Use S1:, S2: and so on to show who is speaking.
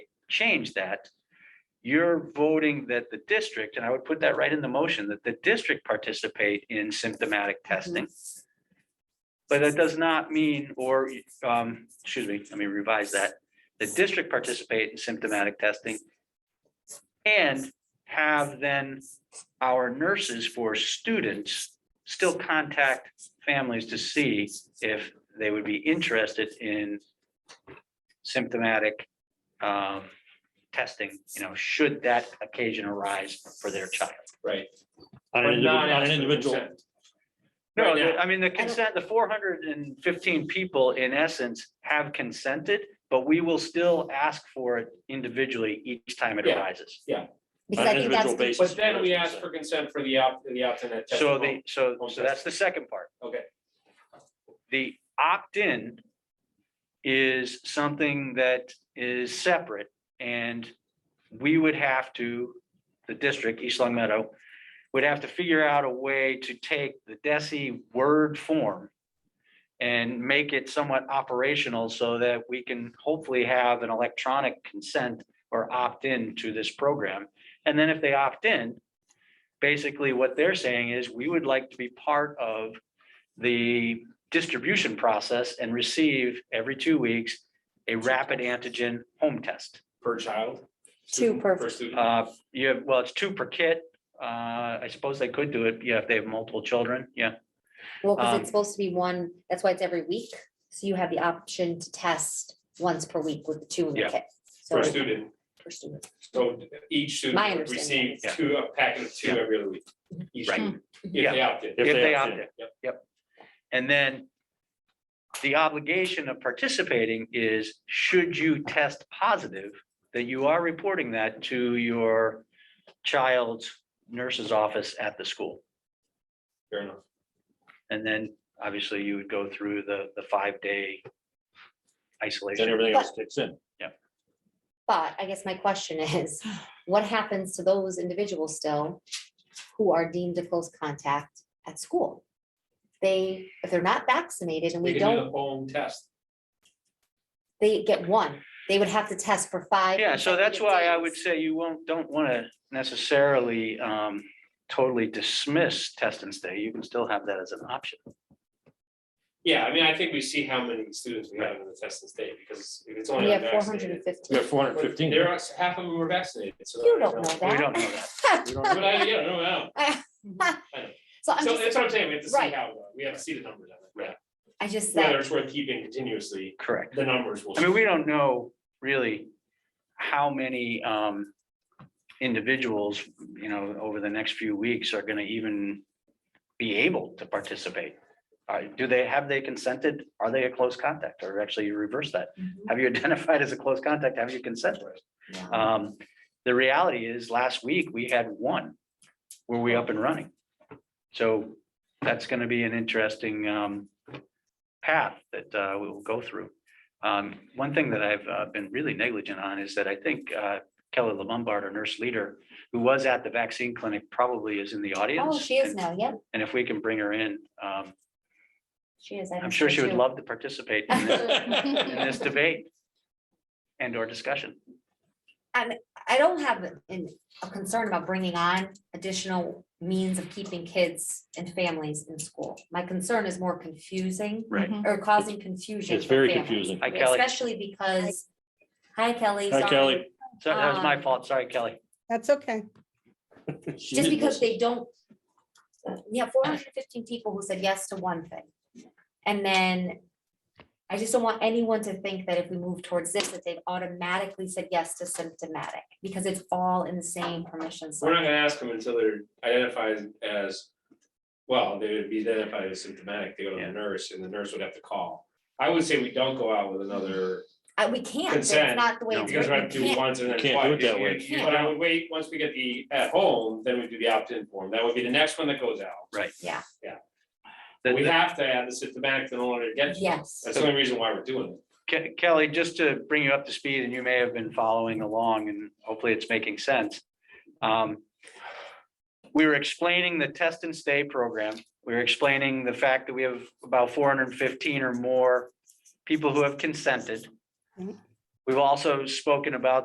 S1: change that, you're voting that the district, and I would put that right in the motion, that the district participate in symptomatic testing. But that does not mean, or, um, excuse me, let me revise that. The district participate in symptomatic testing. And have then our nurses for students still contact families to see if they would be interested in symptomatic um, testing, you know, should that occasion arise for their child.
S2: Right.
S3: On
S2: But
S3: an
S2: not
S3: individual, on
S2: ask
S3: an
S2: for
S3: individual,
S2: consent.
S1: No,
S2: Right now.
S1: the- I mean, the consent, the four hundred and fifteen people in essence have consented, but we will still ask for it individually each time it
S2: Yeah.
S1: arises.
S3: on
S4: Because I
S3: an
S4: think
S3: individual
S4: that's,
S3: basis.
S2: But then we
S3: that's
S2: ask for consent for the opt, the opt-in at
S1: So
S2: testing.
S1: they, so,
S2: Home
S1: so that's the second part.
S2: Okay.
S1: The opt-in is something that is separate and we would have to, the district, East Long Meadow, would have to figure out a way to take the DESI word form and make it somewhat operational so that we can hopefully have an electronic consent or opt-in to this program. And then if they opt in, basically what they're saying is we would like to be part of the distribution process and receive every two weeks a rapid antigen home test.
S2: Per child.
S4: Two
S2: student,
S4: per-
S2: student.
S1: Uh, you have, well, it's two per kit. Uh, I suppose they could do it, yeah, if they have multiple children, yeah.
S4: well, because
S1: um,
S4: it's supposed to be one, that's why it's every week. So you have the option to test once per week with the two in the
S1: Yeah.
S4: kit. So
S2: Per student.
S4: per student.
S2: So each
S4: My
S2: student would
S4: understanding
S2: receive
S1: is-
S2: two, a packet of two
S1: Yeah.
S2: every other week. Each
S1: Right.
S2: student,
S1: Yeah.
S2: If they opt in.
S3: If
S1: If
S3: they
S1: they
S3: opt
S1: opt in,
S2: Yep.
S1: yep. And then the obligation of participating is, should you test positive, that you are reporting that to your child's nurse's office at the school.
S2: Fair enough.
S1: And then obviously you would go through the, the five-day
S3: Then
S1: isolation.
S3: everything else kicks in.
S4: But I guess my question is, what happens to those individuals still who are deemed a close contact at school? They, if they're not vaccinated and
S2: They
S4: we
S2: can do the
S4: don't,
S2: home test.
S4: they get one, they would have to test for five.
S1: Yeah, so that's
S4: consecutive
S1: why I
S4: days.
S1: would say you won't, don't want to necessarily um, totally dismiss test and stay. You can still have that as an option.
S2: Yeah, I mean, I think we see how many students we have in the test and state, because if it's only.
S4: We have four
S2: unvaccinated-
S4: hundred and
S3: We
S4: fifteen.
S3: have four hundred
S2: But
S3: fifteen.
S2: There are, half of them were vaccinated, so.
S4: You don't know
S1: We
S4: that.
S1: don't know that.
S2: But I, yeah, no, no.
S4: So I'm
S2: So
S4: just,
S2: that's what I'm saying, we have to see
S4: Right.
S2: how, it goes. we have to see the numbers on it.
S4: I just
S2: Whether
S4: said,
S2: it's worth keeping continuously,
S1: Correct.
S2: the numbers will.
S1: I mean, we don't know really how many um individuals, you know, over the next few weeks are gonna even be able to participate. Uh, do they, have they consented? Are they a close contact or actually you reverse that? Have you identified as a close contact? Have you consented? Um, the reality is, last week, we had one. Were we up and running? So that's gonna be an interesting um path that uh we will go through. Um, one thing that I've uh, been really negligent on is that I think uh Kelly Lombard, our nurse leader, who was at the vaccine clinic, probably is in the audience.
S4: oh, she is
S1: And-
S4: now, yep,
S1: And if we can bring her in, um,
S4: she is. I
S1: I'm
S4: missed
S1: sure
S4: her
S1: she would
S4: too.
S1: love to participate in this- in this debate and or discussion.
S4: I don't have an- a concern about bringing on additional means of keeping kids and families in school. My concern is more confusing
S1: Right.
S4: or causing confusion.
S3: It's
S4: for
S3: very
S4: families,
S3: confusing.
S1: Hi, Kelly.
S4: Mm-hmm. Especially because, hi Kelly.
S3: Hi,
S4: sorry.
S3: Kelly.
S1: So that was my
S4: Um,
S1: fault. Sorry, Kelly.
S5: That's okay.
S3: She did
S4: Just because
S3: this.
S4: they don't, yeah, four hundred and fifteen people who said yes to one thing. And then I just don't want anyone to think that if we move towards this, that they've automatically said yes to symptomatic, because it's all in the same permission. slip.
S2: We're not gonna ask them until they're identified as, well, they would be identified as symptomatic, they go to
S1: Yeah.
S2: the nurse, and the nurse would have to call. I would say we don't go out with another,
S4: I, we can't, that's
S2: Consent,
S4: not the way
S1: no.
S4: it's
S2: because we're gonna
S4: written.
S2: do
S4: You can't-
S2: once and then
S3: You can't do it that way.
S2: twice. But I would wait, once we get the at home, then we do the opt-in form, that would be the next one that goes out.
S1: Right.
S4: Yeah.
S2: Yeah.
S1: The-
S2: We
S1: the-
S2: have to add the symptomatic in order to get,
S4: Yes,
S2: that's the only reason why we're doing it.
S1: Ke- Kelly, just to bring you up to speed, and you may have been following along, and hopefully it's making sense. Um, We were explaining the test and stay program. We were explaining the fact that we have about four hundred and fifteen or more people who have consented.
S4: Mm-hmm.
S5: Mhm.
S1: We've also spoken about